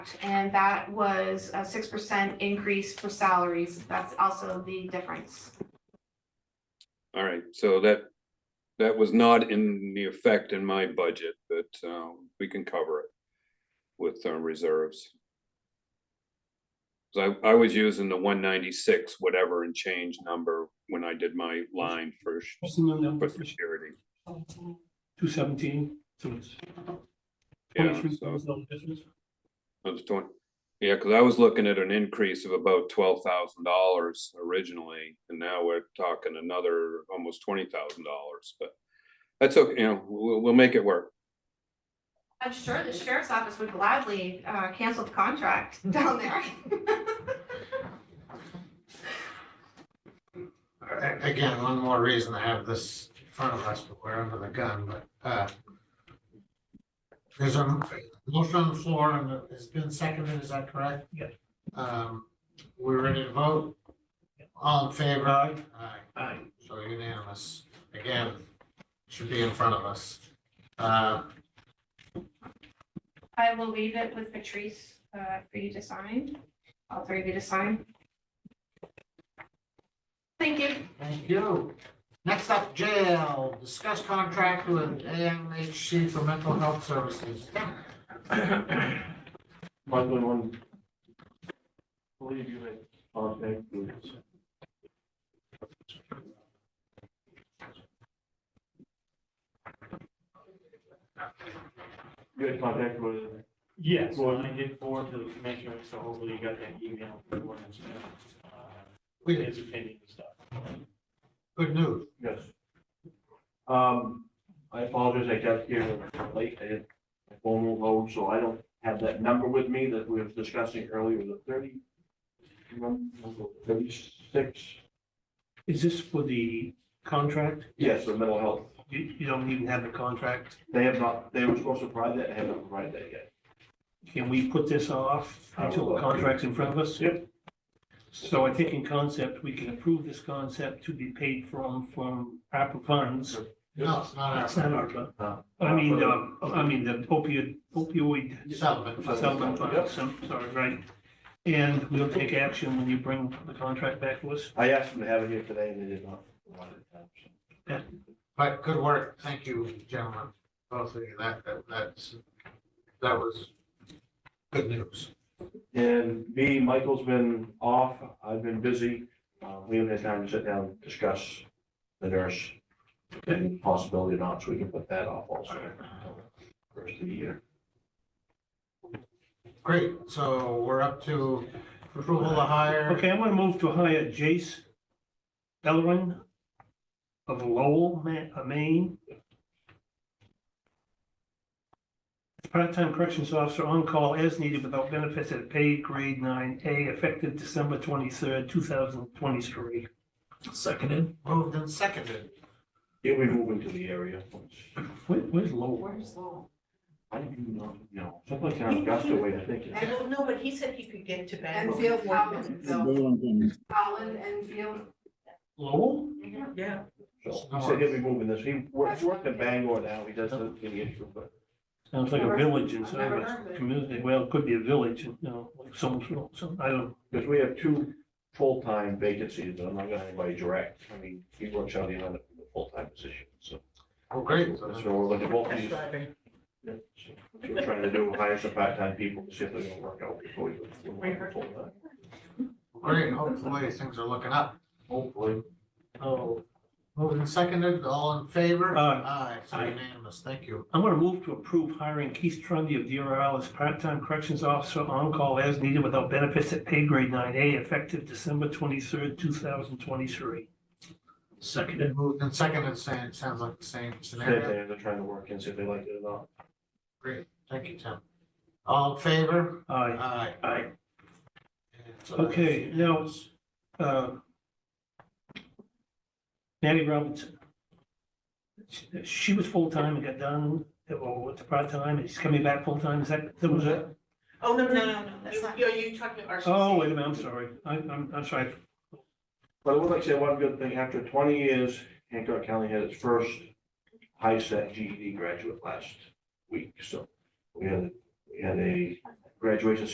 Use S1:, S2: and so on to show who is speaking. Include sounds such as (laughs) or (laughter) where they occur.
S1: And that was a six percent increase for salaries. That's also the difference.
S2: All right, so that, that was not in the effect in my budget, but um, we can cover it with uh, reserves. 'Cause I, I was using the one ninety-six, whatever and change number when I did my line for, sh-
S3: What's the number? (laughs)
S2: for security.
S3: Two seventeen, so it's
S2: Yeah,
S3: twenty-three
S2: so
S3: thousand difference.
S2: I was doing, yeah, because I was looking at an increase of about twelve thousand dollars originally, and now we're talking another almost twenty thousand dollars, but that's okay, you know, we'll, we'll make it work.
S1: I'm sure the sheriff's office would gladly uh, cancel the contract (laughs) down there.
S4: A- Again, one more reason to have this in front of us, but we're under the gun, but, uh, there's a motion on the floor and it's been seconded, is that correct?
S3: Yeah.
S4: Um, we're ready to vote? All in favor? Aye.
S3: Aye.
S4: So unanimous. Again, should be in front of us. Uh,
S1: I will leave it with Patrice uh, for you to sign, all three of you to sign. Thank you.
S4: thank you. Next up, jail, discuss contract with AMHC for mental health services.
S5: Michael, I want believe you had contact with. You had contact with,
S6: Yes,
S5: Well-
S6: well, I did forward to the commissioner, so hopefully you got that email. from the ones, uh,
S4: We did.
S6: His opinion and stuff.
S4: Good news.
S5: yes. Um, I apologize, I got here late, I had my phone was low, so I don't have that number with me that we were discussing earlier, the thirty. Thirty-six,
S3: Is this for the contract?
S5: yes, the mental health
S3: You, you don't even have the contract?
S5: They have not, they were supposed to provide that, they haven't provided that yet.
S3: Can we put this off until the contract's in front of us?
S5: Yep.
S3: So I think in concept, we can approve this concept to be paid from, from ARPA funds.
S4: No, it's not our
S3: It's not ARPA.
S5: No.
S3: I
S5: uh,
S3: mean, um, I mean, the opioid, opioid
S4: settlement.
S3: settlement
S5: Yep.
S3: funds, I'm sorry, right? And we'll take action when you bring the contract back to us.
S5: I asked them to have it here today and they did not. provide it.
S4: But good work. Thank you, gentlemen, both of you. That, that, that's, that was good news.
S5: And me, Michael's been off, I've been busy, uh, we haven't had time to sit down, and discuss the nurse. And possibility or not, so we can put that off also. until the First of the year.
S4: Great. So we're up to approval to hire.
S3: Okay, I'm gonna move to hire Jace Bellerin of Lowell, Ma- uh, Maine. Part-time corrections officer on call as needed without benefits at paid grade nine A effective December twenty-third, two thousand twenty-three. Seconded.
S4: Moved and seconded.
S5: He'll be moving to the area. which
S3: Where, where's Lowell?
S7: Where's Lowell?
S5: I don't even know, you know, something like that, that's the way I think. it
S7: I don't know, but he said he could get to Bangor.
S1: Enfield, Collins, Holland, Enfield.
S3: Lowell?
S7: Yeah.
S5: is. So, He said he'll be moving this, he works, works in Bangor now, he doesn't see the issue, but.
S3: Sounds like a village inside
S7: Never heard of
S3: a
S7: it.
S3: community. Well, it could be a village, you know, like someone's, some, I don't,
S5: Because we have two full-time vacancies, but I'm not gonna anybody direct, I mean, he works out the other full-time position, so.
S4: Oh, great. So
S5: That's what we're looking for,
S4: that's-
S5: he's, we're trying to do, hire some part-time people, to see if they're gonna work out before we. full-time.
S4: Great. Hopefully things are looking up.
S5: Hopefully.
S3: oh,
S4: Moved and seconded. All in favor? Aye. So
S3: Aye.
S4: unanimous. Thank you.
S3: I'm gonna move to approve hiring Keith Trundy of DRL as part-time corrections officer on-call as needed without benefits at pay grade nine A effective December twenty-third, two thousand twenty-three. Seconded.
S4: Moved and seconded. Same, sounds like the same
S5: Same
S4: scenario.
S5: thing, they're trying to work and see if they like it or not.
S4: Great. Thank you, Tim. All in favor?
S3: Aye.
S4: Aye.
S3: Aye.
S4: And so that's
S3: Okay, now-
S4: unanimous.
S3: Uh, Nanny Robinson. She- She was full-time and got done, or went to part-time, and she's coming back full-time, is that, that was it?
S7: Oh, no, no, no, no,
S1: That's not-
S7: You- Are you talking to RCC?
S3: Oh, wait a minute, I'm sorry. I, I'm, I'm sorry.
S5: But I would like to say one good thing, after twenty years, Hancock County had its first E high set GED graduate last week, so we had, we had a graduation